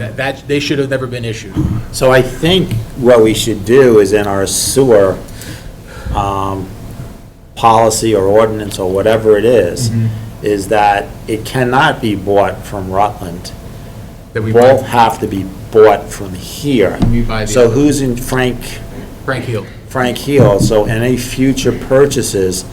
That, that, they should have never been issued. So I think what we should do is in our sewer um, policy or ordinance or whatever it is, Mm-hmm. is that it cannot be bought from Rutland. That we Both bought have to be bought from here. We buy the- So who's in Frank, Frank Hill. Frank Heel? So any future purchases,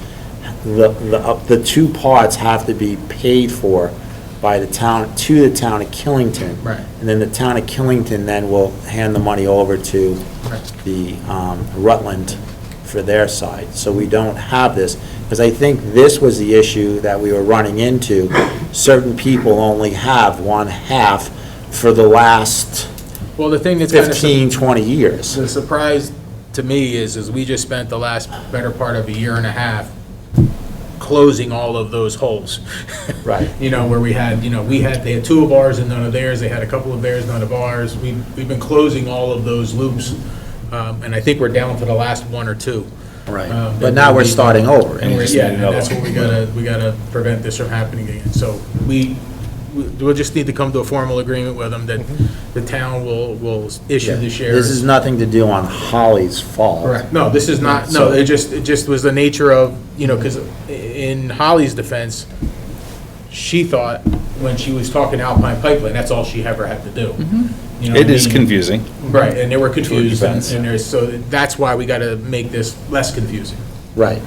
the, the, uh, the two parts have to be paid for by the town, to the town of Killington. Right. And then the town of Killington then will hand the money over to Right. the um, Rutland for their side. So we don't have this, because I think this was the issue that we were running into. Certain people only have one half for the last Well, the thing that's kind of, the 15, 20 years. surprise to me is, is we just spent the last better part of a year and a half closing all of those holes. Right. You know, where we had, you know, we had, they had two of ours and none of theirs, they had a couple of theirs, none of ours. We, we've been closing all of those loops, um, and I think we're down to the last one or two. Um, But now we're starting over. And we're, yeah, and that's what we gotta, we gotta prevent this from happening again. So we, we- we'll just need to come to a formal agreement with them that the town will, will issue the shares. This is nothing to do on Holly's fault. No, this is not, no, it just, it just was the nature of, you know, because in Holly's defense, she thought, when she was talking to Alpine Pipeline, that's all she ever had to do. You know what It I is mean? confusing. Right, and they were confused, and defense. and there's, so that's why we gotta make this less confusing. Right.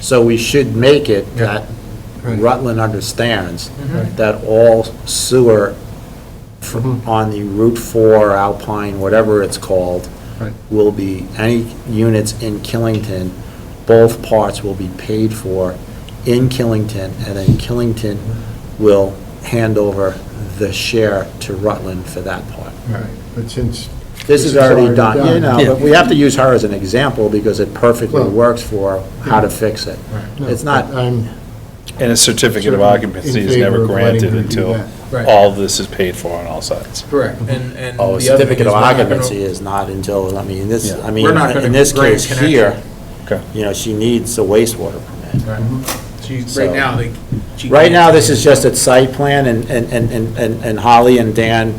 So we should make it Yeah. Mm-hmm. that Rutland understands that all sewer fr- Mm-hmm. on the Route 4, Alpine, whatever it's called, will be, any units in Killington, both parts will be paid for in Killington, and then Killington Mm-hmm. will hand over the share to Rutland for that part. Right, but since. This is already done, you know, but we have to use her as an example because it perfectly Well- works for how to fix it. No, It's uh, not, I'm And a certificate of Certainly occupancy in is never favor of letting granted her do until that. Right. all this is paid for on all sides. Correct, and, and. oh, a the other thing is certificate of we're not gonna- occupancy is not until, I mean, this, Yeah. I mean, We're not gonna in this grant case here, Okay. you know, she needs a wastewater permit. Right. She's, So- right now, they. she Right can't- now, this is just a site plan, and, and, and- and, and and Holly and Dan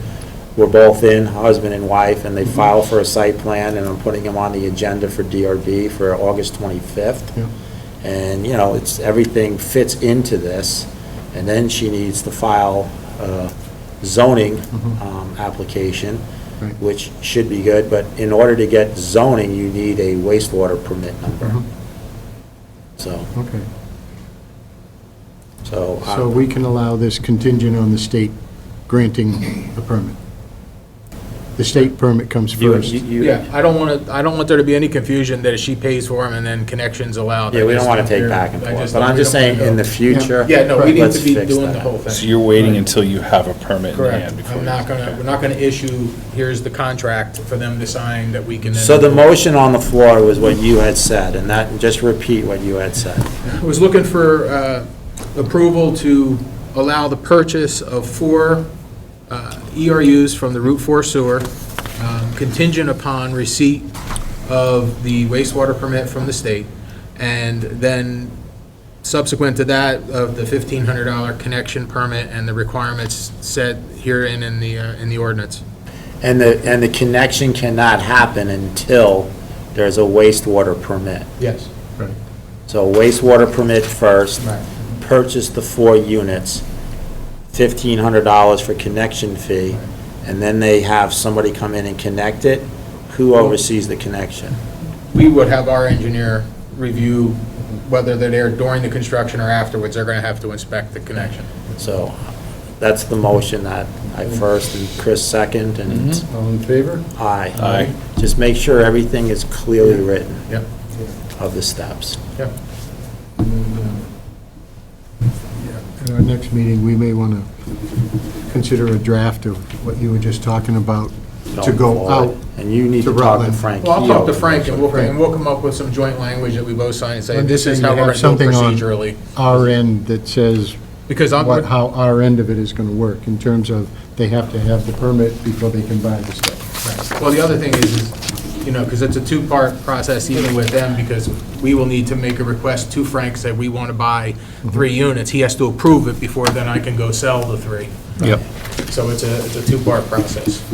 were both in, husband and wife, and they Mm-hmm. filed for a site plan, and I'm putting them on the agenda for DRB for August 25th. Yeah. And, you know, it's, everything fits into this, and then she needs to file a zoning um, application, Mm-hmm. Right. which should be good, but in order to get zoning, you need a wastewater permit number. Mhm. So, Okay, so. um, I- so we can allow this contingent on the state granting a permit. The state permit comes you- first. you- you- Yeah, I don't want to, I don't want there to be any confusion that if she pays for them and then connections allowed. Yeah, we don't want to take I back and just forth, don't- but I'm we just don't wanna saying, in the go- future. Yeah, no, we need let's to be fix doing that. the whole thing. So you're waiting until you have a permit in Correct. hand before I'm you... not gonna, we're not gonna issue, here's the contract for them to sign that we can then. So the motion on the floor was what you had said, and that, just repeat what you had said. I was looking for uh, approval to allow the purchase of four uh, ERUs from the Route 4 sewer um, contingent upon receipt of the wastewater permit from the state, and then subsequent to that, of the $1,500 connection permit and the requirements set herein in the, uh, in the ordinance. And the, and the connection cannot happen until there's a wastewater permit. Yes. Right. So wastewater permit first, Right. purchase the four units, fifteen hundred dollars for connection fee, and then they have somebody come in and connect it. Who oversees the connection? we would have our engineer review whether they're there during the construction or afterwards, they're gonna have to inspect the connection. So that's the motion that I first and Chris second and Mm-hmm. All in favor? I. Aye. Just make sure everything is clearly written Yep, of the steps. yep. At our next meeting, we may want to consider a draft of what you were just talking about to going go forward. out. And you need to to talk to Rutland. Frank. Well, I'll talk to Keough. Frank and we'll, and we'll come up with some joint language that we both sign and say, this is how we're gonna do it Something on procedurally. Our end that says Because I'm, what, how our end of it is going to work in terms of they have to have the permit before they can buy the stuff. well, the other thing is, is, you know, because it's a two-part process even with them, because we will need to make a request to Frank, say, we wanna buy three units. He has to approve it before then I can go sell the three. Yep. So it's a, it's a two-part process.